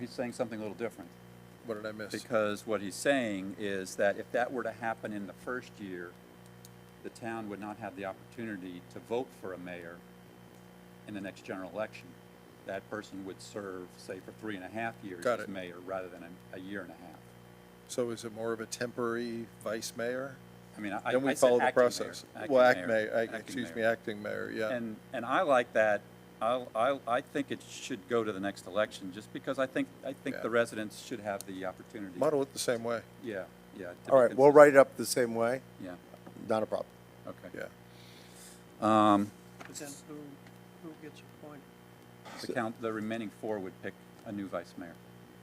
He's saying something a little different, What did I miss? because what he's saying is that if that were to happen in the first year, the town would not have the opportunity to vote for a mayor in the next general election. That person would serve, say, for three and a half years Got as it. mayor, rather than a, a year and a half. So is it more of a temporary vice mayor? I mean, I, I Then we said follow the acting mayor, process. acting Well, act mayor, act- acting excuse me, uh, mayor. acting mayor, yeah. And, and I like that. I'll, I'll, I think it should go to the next election, just because I think, I think Yeah. the residents should have the opportunity. Model it the same way, Yeah, yeah. to be All right, we'll consistent. write it up the same way, Yeah, not a problem. okay. yeah. Um, But then who, who gets appointed? the count, the remaining four would pick a new vice mayor.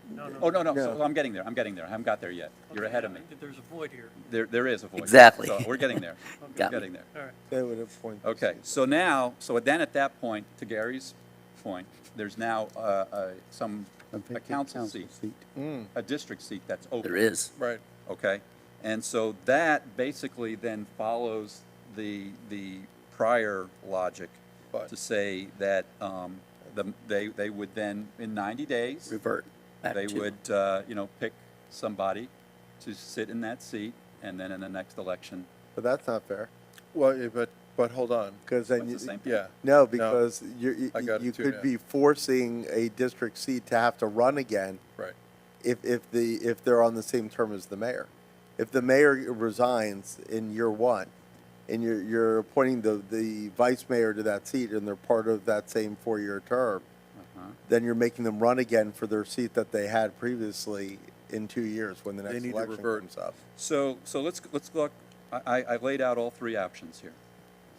No, no. Oh, no, no, so No. I'm getting there, I'm getting there, I haven't got there yet. You're ahead of me. There's a void here. There, there is a void. Exactly. So We're getting there. We're Got me. Getting there. All right. They would appoint. Okay, so now, so then at that point, to Gary's point, there's now, uh, uh, some, a council seat, a district seat that's open. There is. Right, okay? And so that basically then follows the, the prior logic But- to say that um, the, they, they would then, in 90 days, Revert back they to- would, uh, you know, pick somebody to sit in that seat, and then in the next election, But that's not fair, well, yeah, but, but hold on, because then That's the you, same. yeah. no, because you're, I you- got it you too now. could be forcing a district seat to have to run again Right, if, if the, if they're on the same term as the mayor. If the mayor resigns in year one, and you're, you're appointing the, the vice mayor to that seat, and they're part of that same four-year term, uh-huh, then you're making them run again for their seat that they had previously in two years when the They next need to election revert. comes up. So, so let's, let's look, I, I- I laid out all three options here,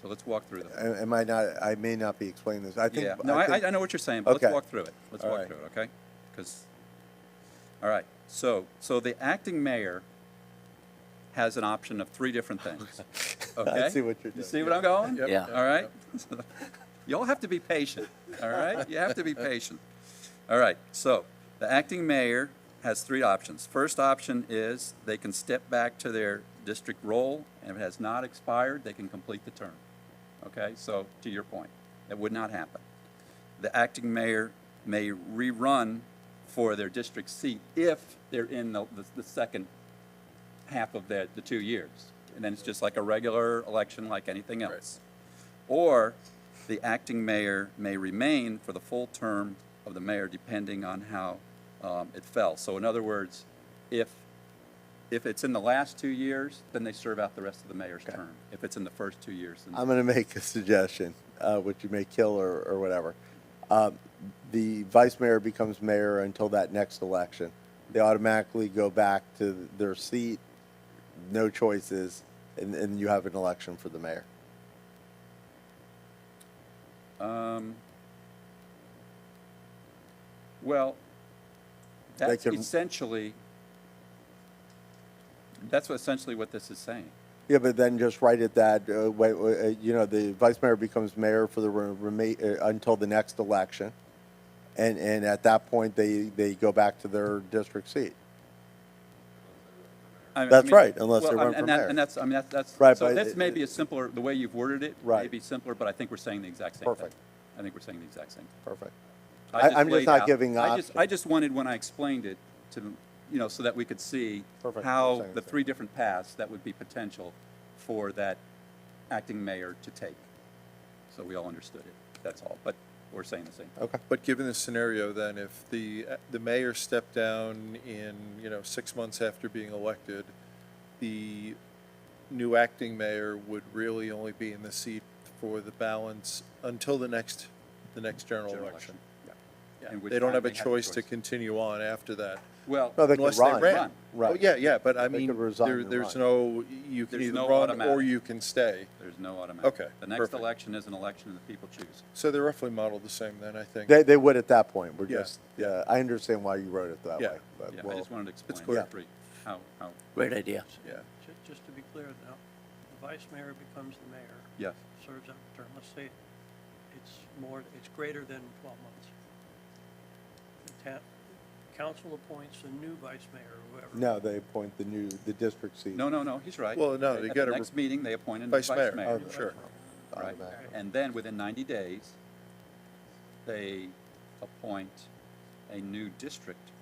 so let's walk through them. Am am I not, I may not be explaining this. I think. Yeah, no, I, think- I know what you're saying, but let's Okay. walk through it. Let's All walk right. through it, okay? Because, all right, so, so the acting mayor has an option of three different things, okay? see what you're You doing. see what I'm going? Yep, Yeah. yep, All right? Y'all have to be patient, all right? You have to be patient. All right, so the acting mayor has three options. First option is they can step back to their district role, and if it has not expired, they can complete the term. Okay, so to your point, that would not happen. The acting mayor may rerun for their district seat if they're in the, the- the second half of the, the two years. And then it's just like a regular election like anything else. Or the acting mayor may remain for the full term of the mayor depending on how um, it fell. So in other words, if, if it's in the last two years, then they serve out the rest of the mayor's term. If it's in the first two years, then I'm going to make a suggestion, uh, which you may kill or, or whatever. Um, the vice mayor becomes mayor until that next election. They automatically go back to their seat, no choices, and, and you have an election for the mayor. Um, Well, They that's can- essentially, that's what essentially what this is saying. Yeah, but then just write it that, uh, wait, wait, uh, you know, the vice mayor becomes mayor for the re- remain, uh, until the next election. And, and at that point, they, they go back to their district seat. I mean- That's I mean- right, well, unless they I mean, run and for that- mayor. And that's, I mean, that's, that's. Right, So but that's it- maybe a simpler, the way you've worded it. May Right. be simpler, but I think we're saying the exact same thing. Perfect. I think we're saying the exact same. thing. Perfect. I I- I'm just laid not out- giving the I just, option. I just wanted, when I explained it, to, you know, so that we could see Perfect, I'm how saying the the same. three different paths that would be potential for that acting mayor to take. So we all understood it, that's all, but we're saying the same. thing. Okay. But given this scenario, then, if the, the mayor stepped down in, you know, six months after being elected, the new acting mayor would really only be in the seat for the balance until the next, the next general General election. yeah. Yeah. In which They don't time have a they have a choice to choice. continue on after that. Well, No, they could Unless they run. ran. Right. Oh, yeah, yeah, but I They mean, could resign there, and there's run. no, you can There's either no run or automatic. you can stay. there's no automatic. Okay, The next perfect. election is an election that the people choose. So they're roughly modeled the same then, I think. They, they would at that point. We're Yeah. just, yeah, I understand why you wrote it that Yeah. way. but Yeah, I we'll- just wanted to explain Uh, clear. the three, how, how, Great idea. Yeah. Ju- Just to be clear now, the vice mayor becomes the mayor, yes, serves out the term. Let's say it's more, it's greater than 12 months. The ta- council appoints a new vice mayor or whoever. No, they appoint the new, the district seat. no, no, no, he's right. Well, At- no, you At the gotta next re- meeting, they appoint a new Vice mayor, mayor. Oh, sure. Right, automatic. and then within ninety days, they appoint a new district